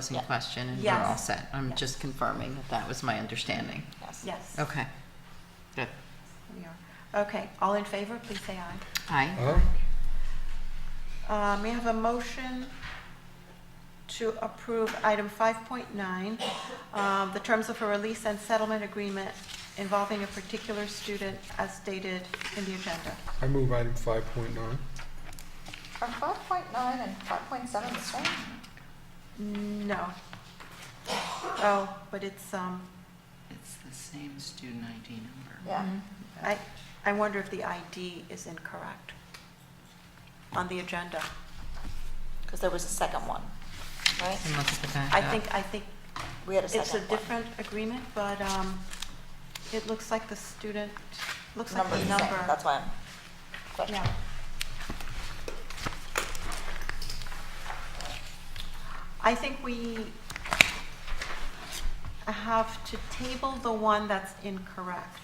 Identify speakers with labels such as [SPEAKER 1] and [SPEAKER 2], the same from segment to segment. [SPEAKER 1] closing
[SPEAKER 2] Yeah.
[SPEAKER 1] question and we're
[SPEAKER 3] Yes.
[SPEAKER 1] all set. I'm
[SPEAKER 2] Yes.
[SPEAKER 1] just confirming that that was my understanding.
[SPEAKER 2] Yes.
[SPEAKER 3] Yes.
[SPEAKER 1] Okay. Good.
[SPEAKER 3] We are. Okay, all in favor, please say aye.
[SPEAKER 1] Aye.
[SPEAKER 4] Huh?
[SPEAKER 3] Uh, May I have a motion to approve item 5.9, um, the terms of a release and settlement agreement involving a particular student as stated in the agenda?
[SPEAKER 4] I move item five point nine.
[SPEAKER 2] Are five point nine and five point seven the same?
[SPEAKER 3] No. Oh, but it's, um,
[SPEAKER 5] It's the same student ID number.
[SPEAKER 2] Yeah.
[SPEAKER 3] Mm-hmm. I, I wonder if the ID is incorrect on the agenda.
[SPEAKER 2] Because there was a second one, right?
[SPEAKER 1] And let's put that
[SPEAKER 3] I
[SPEAKER 1] up.
[SPEAKER 3] think, I think
[SPEAKER 2] We had a
[SPEAKER 3] It's a
[SPEAKER 2] second one.
[SPEAKER 3] different agreement, but um, it looks like the student, looks like
[SPEAKER 2] Number's
[SPEAKER 3] the
[SPEAKER 2] the same,
[SPEAKER 3] number.
[SPEAKER 2] that's why I'm questioning.
[SPEAKER 3] Yeah. I think we have to table the one that's incorrect,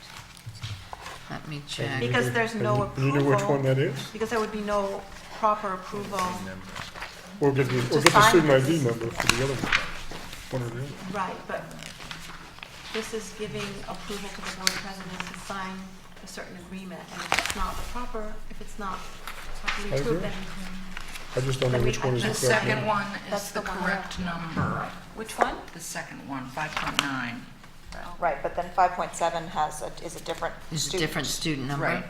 [SPEAKER 1] Let me check.
[SPEAKER 3] Because there's no
[SPEAKER 4] You know which
[SPEAKER 3] approval.
[SPEAKER 4] one that is?
[SPEAKER 3] because there would be no proper approval.
[SPEAKER 4] Or get the,
[SPEAKER 3] To
[SPEAKER 4] or get the
[SPEAKER 3] sign
[SPEAKER 4] student
[SPEAKER 3] this.
[SPEAKER 4] ID number for the other one. One or the other.
[SPEAKER 3] Right, but this is giving approval to the board president to sign a certain agreement, and if it's not proper, if it's not properly
[SPEAKER 4] I agree.
[SPEAKER 3] approved, then
[SPEAKER 4] I just don't know
[SPEAKER 3] But we
[SPEAKER 4] which one is
[SPEAKER 3] have
[SPEAKER 4] the
[SPEAKER 5] The
[SPEAKER 3] to-
[SPEAKER 4] correct
[SPEAKER 5] second
[SPEAKER 4] one.
[SPEAKER 5] one
[SPEAKER 3] That's
[SPEAKER 5] is
[SPEAKER 3] the
[SPEAKER 5] the
[SPEAKER 3] one.
[SPEAKER 5] correct number.
[SPEAKER 3] which one?
[SPEAKER 5] The second one, five point nine.
[SPEAKER 2] Right, but then five point seven has, a- is a different
[SPEAKER 1] It's a
[SPEAKER 2] student.
[SPEAKER 1] different student number.
[SPEAKER 5] Right.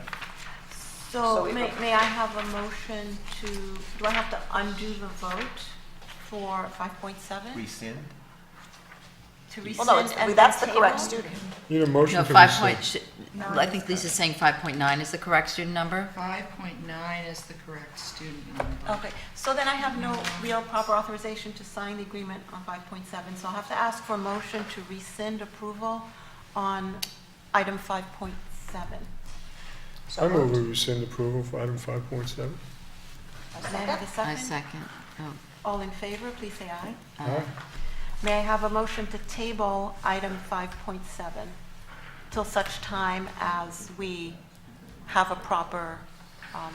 [SPEAKER 3] So
[SPEAKER 2] So we
[SPEAKER 3] may,
[SPEAKER 2] vote.
[SPEAKER 3] may I have a motion to, do I have to undo the vote for 5.7?
[SPEAKER 6] rescind?
[SPEAKER 3] To
[SPEAKER 2] Well, no,
[SPEAKER 3] rescind and
[SPEAKER 2] it's, that's the
[SPEAKER 3] then
[SPEAKER 2] correct
[SPEAKER 3] table?
[SPEAKER 2] student.
[SPEAKER 4] Need a
[SPEAKER 1] No,
[SPEAKER 4] motion to
[SPEAKER 1] five
[SPEAKER 4] rescind.
[SPEAKER 1] point, sh- I think Lisa's saying five point nine is the correct student number.
[SPEAKER 5] Five point nine is the correct student number.
[SPEAKER 3] Okay, so then I have no real proper authorization to sign the agreement on 5.7, so I'll have to ask for a motion to rescind approval on item 5.7.
[SPEAKER 2] So
[SPEAKER 4] I move
[SPEAKER 2] moved.
[SPEAKER 4] we rescind approval for item five point seven.
[SPEAKER 2] A
[SPEAKER 3] May I have
[SPEAKER 2] second?
[SPEAKER 3] a
[SPEAKER 1] I
[SPEAKER 3] second?
[SPEAKER 1] second. Oh,
[SPEAKER 3] All in favor, please say aye.
[SPEAKER 1] uh,
[SPEAKER 3] May I have a motion to table item 5.7 till such time as we have a proper, um,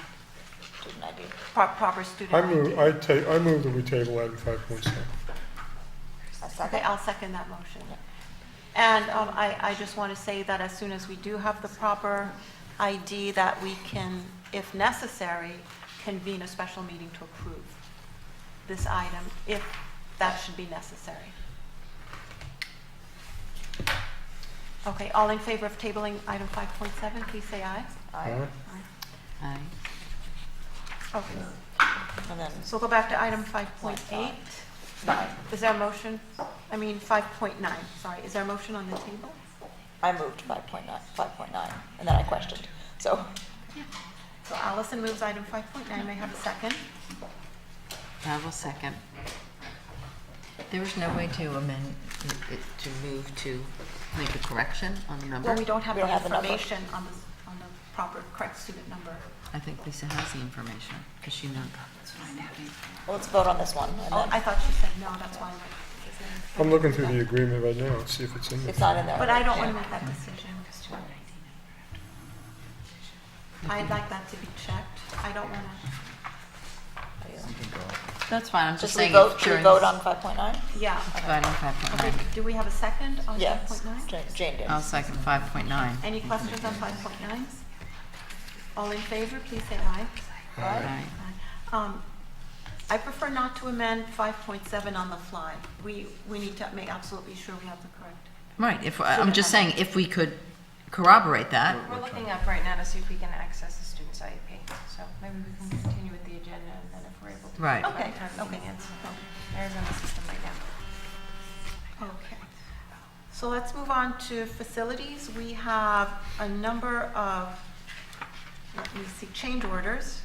[SPEAKER 2] Student ID.
[SPEAKER 3] pro- proper student
[SPEAKER 4] I
[SPEAKER 3] ID?
[SPEAKER 4] move, I ta, I move that we table item five point seven.
[SPEAKER 2] A
[SPEAKER 3] Okay,
[SPEAKER 2] second?
[SPEAKER 3] I'll second that motion. And um, I, I just want to say that as soon as we do have the proper ID, that we can, if necessary, convene a special meeting to approve this item, if that should be necessary. Okay, all in favor of tabling item 5.7, please say aye.
[SPEAKER 2] Aye.
[SPEAKER 1] aye.
[SPEAKER 3] Okay,
[SPEAKER 2] And then
[SPEAKER 3] so we'll go back to item 5.8.
[SPEAKER 2] nine.
[SPEAKER 3] Is there a motion? I mean, 5.9, sorry. Is there a motion on the table?
[SPEAKER 2] I moved five point nine, five point nine, and then I questioned. So,
[SPEAKER 3] So Allison moves item 5.9, may I have a second?
[SPEAKER 1] I will second. There was no way to amend, it- to move to make a correction on the number?
[SPEAKER 3] Well, we don't have
[SPEAKER 2] We
[SPEAKER 3] the
[SPEAKER 2] don't have the number.
[SPEAKER 3] information on the, on the proper, correct student number.
[SPEAKER 1] I think Lisa has the information because she knows.
[SPEAKER 5] That's what I'm having.
[SPEAKER 2] well, let's vote on this one. and
[SPEAKER 3] Oh,
[SPEAKER 2] then-
[SPEAKER 3] I thought she said no, that's why. I'm like,
[SPEAKER 4] I'm looking through the agreement right now, and see if it's in there.
[SPEAKER 2] It's not in there.
[SPEAKER 3] But I don't want to make that decision. I'd like that to be checked. I don't want to,
[SPEAKER 1] That's fine, I'm just
[SPEAKER 2] Just
[SPEAKER 1] saying.
[SPEAKER 2] revote, should we vote on five point nine?
[SPEAKER 3] yeah.
[SPEAKER 1] Vote on five point
[SPEAKER 3] Okay,
[SPEAKER 1] nine.
[SPEAKER 3] do we have a second on
[SPEAKER 2] Yes,
[SPEAKER 3] 5.9?
[SPEAKER 2] Jane- Jane did.
[SPEAKER 1] I'll second five point nine.
[SPEAKER 3] Any questions on 5.9? All in favor, please say aye.
[SPEAKER 2] Right?
[SPEAKER 1] Aye.
[SPEAKER 3] Um, I prefer not to amend 5.7 on the fly. We, we need to make absolutely sure we have the correct
[SPEAKER 1] Right, if, I'm just saying, if we could corroborate that,
[SPEAKER 7] We're looking up right now to see if we can access the student's IEP, so maybe we can continue with the agenda and then if we're able to.
[SPEAKER 1] Right.
[SPEAKER 3] Okay,
[SPEAKER 7] Time
[SPEAKER 3] okay.
[SPEAKER 7] meeting, it's- There's on the system right now.
[SPEAKER 3] Okay. So let's move on to facilities. We have a number of, let me see, change orders.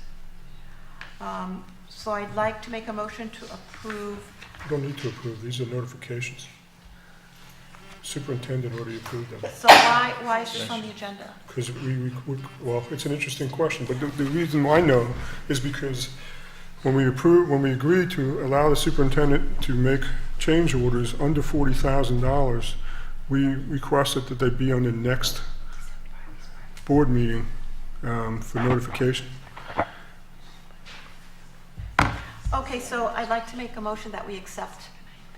[SPEAKER 3] Um, So I'd like to make a motion to approve,
[SPEAKER 4] You don't need to approve, these are notifications. Superintendent already approved them.
[SPEAKER 3] so why, why is this on the agenda?
[SPEAKER 4] Because we, we, we- well, it's an interesting question, but the, the reason I know is because when we approve, when we agreed to allow the superintendent to make change orders under forty thousand dollars, we requested that they be on the next board meeting, um, for notification.
[SPEAKER 3] Okay, so I'd like to make a motion that we accept